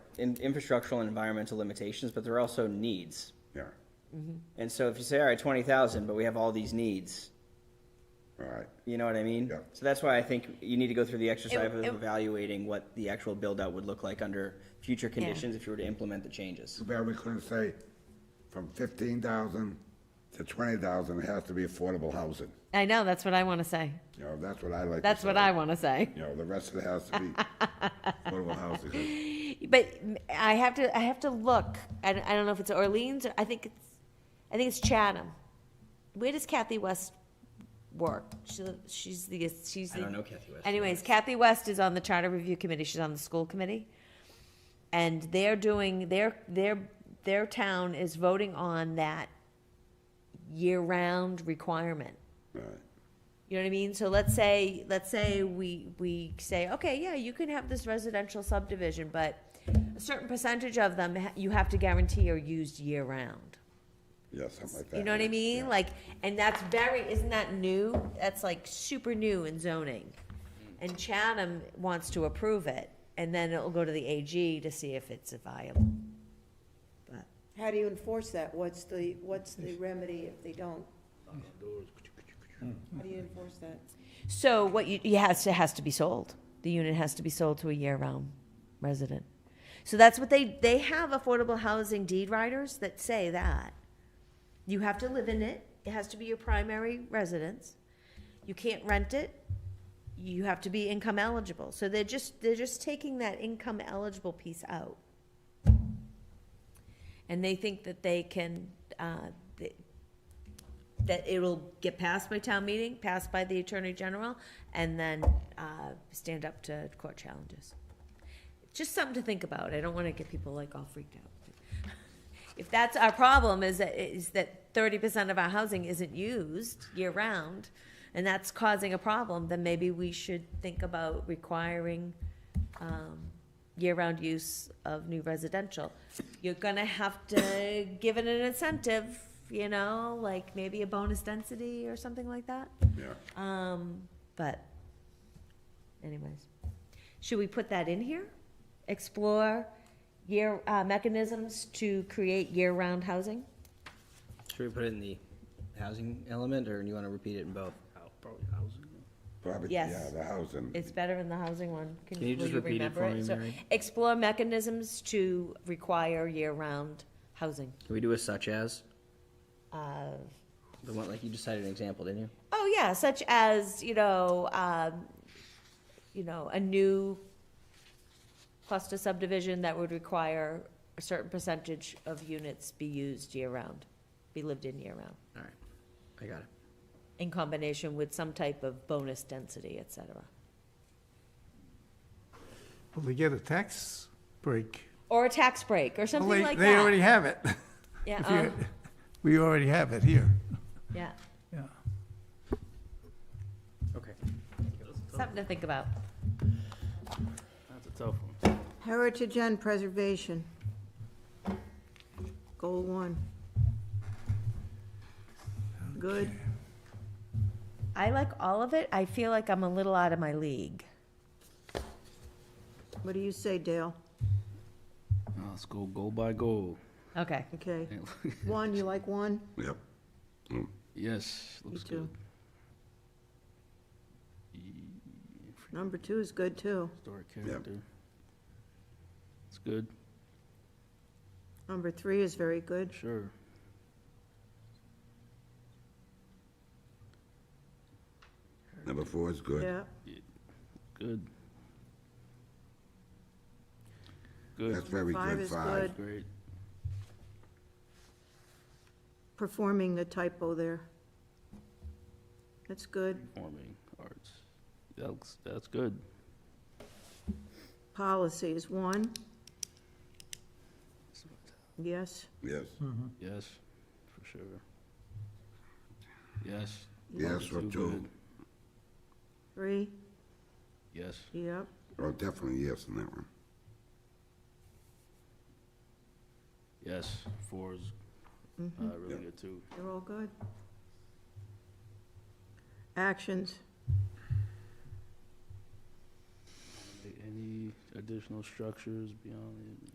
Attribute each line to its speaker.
Speaker 1: in, infrastructural and environmental limitations, but there are also needs.
Speaker 2: yeah,
Speaker 1: And so if you say, all right, twenty thousand, but we have all these needs,
Speaker 2: all right.
Speaker 1: you know what I mean?
Speaker 2: Yeah.
Speaker 1: So that's why I think you need to go through the exercise
Speaker 3: It-
Speaker 1: of
Speaker 3: it-
Speaker 1: evaluating what the actual build-out would look like under future conditions if you were to implement the changes.
Speaker 2: Too bad we couldn't say from fifteen thousand to twenty thousand, it has to be affordable housing.
Speaker 3: I know, that's what I want to say.
Speaker 2: You know, that's what I like to
Speaker 3: That's what
Speaker 2: say.
Speaker 3: I want to say.
Speaker 2: You know, the rest of it has to be affordable housing.
Speaker 3: But I have to, I have to look. I, don't- I don't know if it's Orleans or, I think it's, I think it's Chatham. Where does Kathy West work? She, she's the, she's the.
Speaker 1: I don't know Kathy West.
Speaker 3: Anyways, Kathy West is on the charter review committee. She's on the school committee. And they're doing, their, their, their town is voting on that year-round requirement.
Speaker 2: All right.
Speaker 3: You know what I mean? So let's say, let's say we, we say, okay, yeah, you can have this residential subdivision, but a certain percentage of them, ha- you have to guarantee are used year round.
Speaker 2: Yeah, something like that.
Speaker 3: You know what I
Speaker 2: yeah,
Speaker 3: mean?
Speaker 2: yeah.
Speaker 3: Like, and that's very, isn't that new? That's like super new in zoning. And Chatham wants to approve it, and then it'll go to the AG to see if it's viable. But
Speaker 4: How do you enforce that? What's the, what's the remedy if they don't? How do you enforce that?
Speaker 3: So what you, it has to, has to be sold. The unit has to be sold to a year-round resident. So that's what they, they have affordable housing deed writers that say that. You have to live in it. It has to be your primary residence. You can't rent it. You have to be income eligible. So they're just, they're just taking that income eligible piece out. And they think that they can, uh, th- that it'll get passed by town meeting, passed by the attorney general, and then, uh, stand up to court challenges. Just something to think about, I don't wanna get people like all freaked out. If that's our problem, is that, is that thirty percent of our housing isn't used year-round, and that's causing a problem, then maybe we should think about requiring, um, year-round use of new residential. You're gonna have to give it an incentive, you know, like maybe a bonus density or something like that.
Speaker 2: Yeah.
Speaker 3: Um, but anyways, should we put that in here? Explore year, uh, mechanisms to create year-round housing?
Speaker 1: Should we put it in the housing element or do you want to repeat it in both?
Speaker 5: Probably housing.
Speaker 2: Probably,
Speaker 3: Yes.
Speaker 2: yeah, the housing.
Speaker 3: It's better in the housing one.
Speaker 1: Can you
Speaker 3: will
Speaker 1: just repeat it
Speaker 3: remember
Speaker 1: for me,
Speaker 3: So,
Speaker 1: Mary?
Speaker 3: Explore mechanisms to require year-round housing.
Speaker 1: Can we do a such as?
Speaker 3: Uh,
Speaker 1: The one, like you just cited an example, didn't you?
Speaker 3: Oh yeah, such as you know, um, you know, a new cluster subdivision that would require a certain percentage of units be used year round, be lived in year round,
Speaker 1: All right, I got it.
Speaker 3: in combination with some type of bonus density, et cetera.
Speaker 6: Well, they get a tax break.
Speaker 3: Or a tax break or
Speaker 6: Well,
Speaker 3: something
Speaker 6: they-
Speaker 3: like
Speaker 6: They already
Speaker 3: that.
Speaker 6: have it.
Speaker 3: Yeah,
Speaker 6: If you-
Speaker 3: um,
Speaker 6: We already have it here,
Speaker 3: yeah,
Speaker 6: yeah.
Speaker 1: Okay.
Speaker 3: something to think about.
Speaker 5: That's a tough one.
Speaker 4: Heritage and preservation. Goal one. Good.
Speaker 3: I like all of it. I feel like I'm a little out of my league.
Speaker 4: What do you say, Dale?
Speaker 5: Let's go goal by goal.
Speaker 3: Okay.
Speaker 4: Okay. One, you like one?
Speaker 2: Yep.
Speaker 5: Yes,
Speaker 4: Me
Speaker 5: looks
Speaker 4: too.
Speaker 5: good.
Speaker 4: Number two is good, too.
Speaker 5: Story character. It's good,
Speaker 4: Number three is very good.
Speaker 5: sure.
Speaker 2: Number four is good.
Speaker 4: Yeah.
Speaker 5: Good. Good,
Speaker 2: That's very
Speaker 4: Five
Speaker 2: good,
Speaker 4: is
Speaker 2: five.
Speaker 4: good.
Speaker 5: great.
Speaker 4: Performing the typo there. That's good.
Speaker 5: Performing arts. That's, that's good.
Speaker 4: Policy is one, yes.
Speaker 2: Yes,
Speaker 4: Hmm.
Speaker 5: Yes, for sure. Yes.
Speaker 2: yes,
Speaker 5: too
Speaker 2: or two,
Speaker 5: good.
Speaker 4: Three,
Speaker 5: Yes.
Speaker 4: yep.
Speaker 2: or definitely yes on that one.
Speaker 5: Yes, four is uh, really good too.
Speaker 4: Mm-hmm. They're all good. Actions,
Speaker 5: Any additional structures beyond the